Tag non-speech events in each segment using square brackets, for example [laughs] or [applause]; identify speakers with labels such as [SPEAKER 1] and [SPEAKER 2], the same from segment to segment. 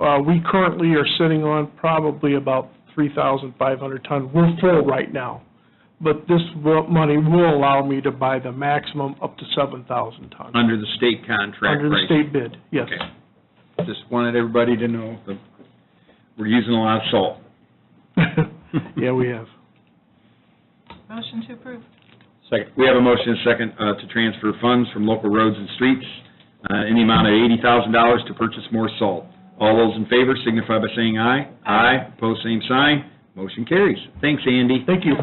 [SPEAKER 1] Uh, We currently are sitting on probably about 3,500 ton. We're full right now, but this will- money will allow me to buy the maximum up to 7,000 tons.
[SPEAKER 2] Under the state contract
[SPEAKER 1] Under the
[SPEAKER 2] price?
[SPEAKER 1] state bid, yes.
[SPEAKER 2] Okay. Just wanted everybody to know that we're using a lot of salt.
[SPEAKER 1] [laughs] Yeah, we have.
[SPEAKER 3] Motion to approve.
[SPEAKER 2] Second, we have a motion and a second uh, to transfer funds from local roads and streets uh, in the amount of eighty thousand dollars to purchase more salt. All those in favor signify by saying aye. Aye. Pose same sign. Motion carries. Thanks, Andy.
[SPEAKER 1] Thank you.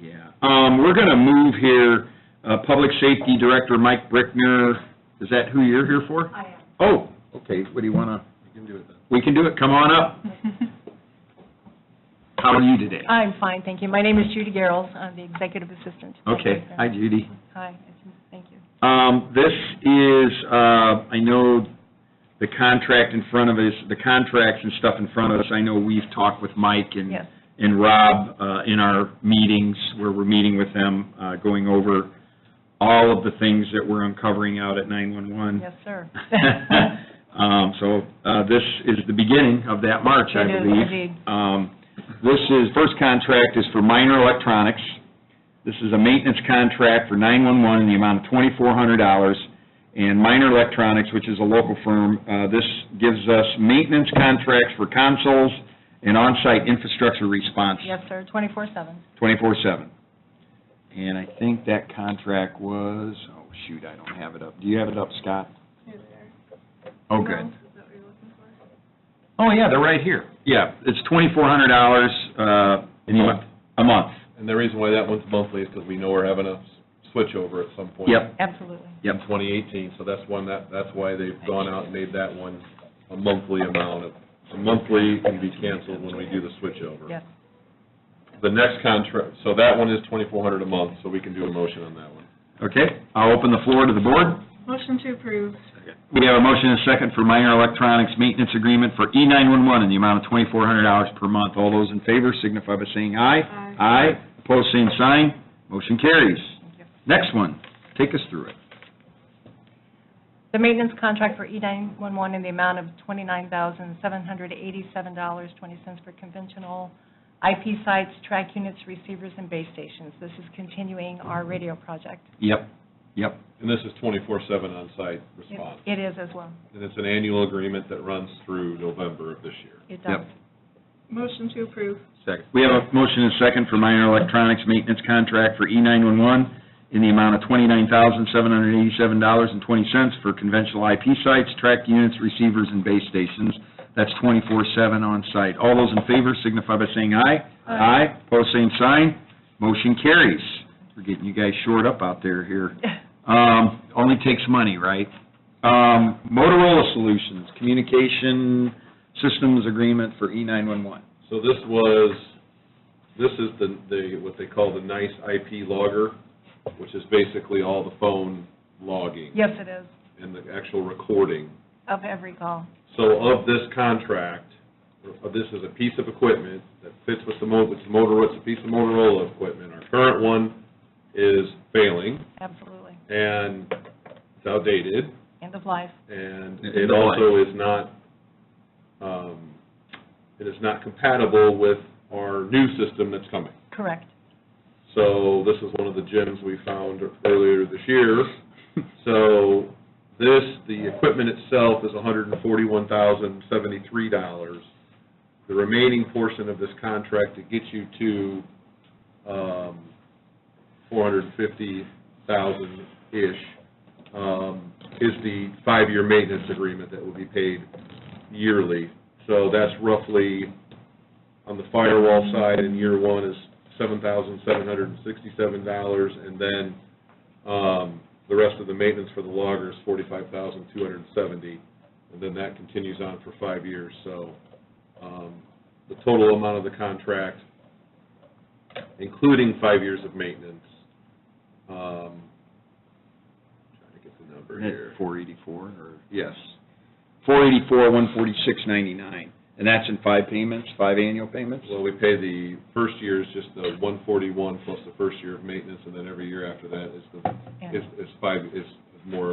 [SPEAKER 2] Yeah. Um, We're going to move here, uh, Public Safety Director Mike Brickner, is that who you're here for? I am. Oh, okay, what do you want to? We can do it We can do it, come on up. [laughs] How are you today?
[SPEAKER 4] I'm fine, thank you. My name is Judy Garrels. I'm the executive assistant. to the
[SPEAKER 2] Okay,
[SPEAKER 4] president.
[SPEAKER 2] hi Judy.
[SPEAKER 4] Hi, thank you.
[SPEAKER 2] Um, This is, uh, I know the contract in front of us, the contracts and stuff in front of us, I know we've talked with Mike and
[SPEAKER 4] Yes.
[SPEAKER 2] and Rob uh, in our meetings, where we're meeting with them, uh, going over all of the things that we're uncovering out at 911.
[SPEAKER 4] Yes,
[SPEAKER 2] [laughs]
[SPEAKER 4] sir.
[SPEAKER 2] Um, So uh, this is the beginning of that march, I
[SPEAKER 4] It is
[SPEAKER 2] believe.
[SPEAKER 4] indeed.
[SPEAKER 2] Um, This is, first contract is for minor electronics. This is a maintenance contract for 911 in the amount of $2,400. And Minor Electronics, which is a local firm, uh, this gives us maintenance contracts for consoles and on-site infrastructure response
[SPEAKER 4] Yes, sir, 24/7.
[SPEAKER 2] 24/7. And I think that contract was, oh, shoot, I don't have it up. Do you have it up, Scott? Oh, good. Oh, yeah, they're right here. Yeah, it's $2,400 uh, in the month, a month.
[SPEAKER 5] And the reason why that one's monthly is because we know we're having a s- switchover at some point.
[SPEAKER 2] Yep,
[SPEAKER 4] Absolutely.
[SPEAKER 2] yep.
[SPEAKER 5] In 2018, so that's one, that, that's why they've gone out and made that one a monthly amount of, a monthly can be canceled when we do the switchover.
[SPEAKER 4] Yes.
[SPEAKER 5] The next contract, so that one is 2,400 a month, so we can do a motion on that one.
[SPEAKER 2] Okay, I'll open the floor to the board.
[SPEAKER 3] Motion to approve.
[SPEAKER 2] We have a motion and a second for minor electronics maintenance agreement for E E911 in the amount of $2,400 per month. All those in favor signify by saying aye.
[SPEAKER 3] Aye.
[SPEAKER 2] Opposed, same sign. Motion carries.
[SPEAKER 4] you.
[SPEAKER 2] Next one, take us through it.
[SPEAKER 4] The maintenance contract for E E911 in the amount of $29,787.20 for conventional IP sites, track units, receivers, and base stations. This is continuing our radio project.
[SPEAKER 2] Yep, yep.
[SPEAKER 5] And this is 24/7 on-site
[SPEAKER 4] It-
[SPEAKER 5] response.
[SPEAKER 4] It is as well.
[SPEAKER 5] And it's an annual agreement that runs through November of this year.
[SPEAKER 4] It
[SPEAKER 2] Yep.
[SPEAKER 4] does. [laughs]
[SPEAKER 3] Motion to approve.
[SPEAKER 2] Second. We have a motion and a second for minor electronics maintenance contract for E E911 in the amount of $29,787.20 for conventional IP sites, track units, receivers, and base stations. That's 24/7 on-site. All those in favor signify by saying aye. Aye. Pose same sign. Motion carries. We're getting you guys shored up out there here. Um, Only takes money, right? Um, Motorola Solutions, communication systems agreement for E E911.
[SPEAKER 5] So this was, this is the, the, what they call the NICE IP logger, which is basically all the phone logging
[SPEAKER 4] Yes, it is,
[SPEAKER 5] and the actual recording.
[SPEAKER 4] of every call.
[SPEAKER 5] So of this contract, uh, this is a piece of equipment that fits with the Mo, it's Motorola, it's a piece of Motorola equipment. Our current one is failing
[SPEAKER 4] Absolutely.
[SPEAKER 5] and it's outdated
[SPEAKER 4] End of life.
[SPEAKER 5] and
[SPEAKER 2] It's
[SPEAKER 5] it
[SPEAKER 2] a lie.
[SPEAKER 5] also is not, um, it is not compatible with our new system that's coming.
[SPEAKER 4] Correct.
[SPEAKER 5] So this is one of the gems we found earlier this year. So this, the equipment itself is $141,073. The remaining portion of this contract to get you to um, $450,000-ish um, is the five-year maintenance agreement that will be paid yearly. So that's roughly, on the firewall side in year one is seven thousand seven hundred and sixty-seven dollars, and then, um, the rest of the maintenance for the logger is forty-five thousand two hundred and seventy, and then that continues on for five years, so, um, the total amount of the contract, including five years of maintenance, um, trying to get the number here.
[SPEAKER 2] 484 or?
[SPEAKER 5] Yes,
[SPEAKER 2] 484, 146.99. And that's in five payments, five annual payments?
[SPEAKER 5] well, we pay the first year is just the one forty-one plus the first year of maintenance, and then every year after that is the
[SPEAKER 4] Yeah.
[SPEAKER 5] is, is five, is more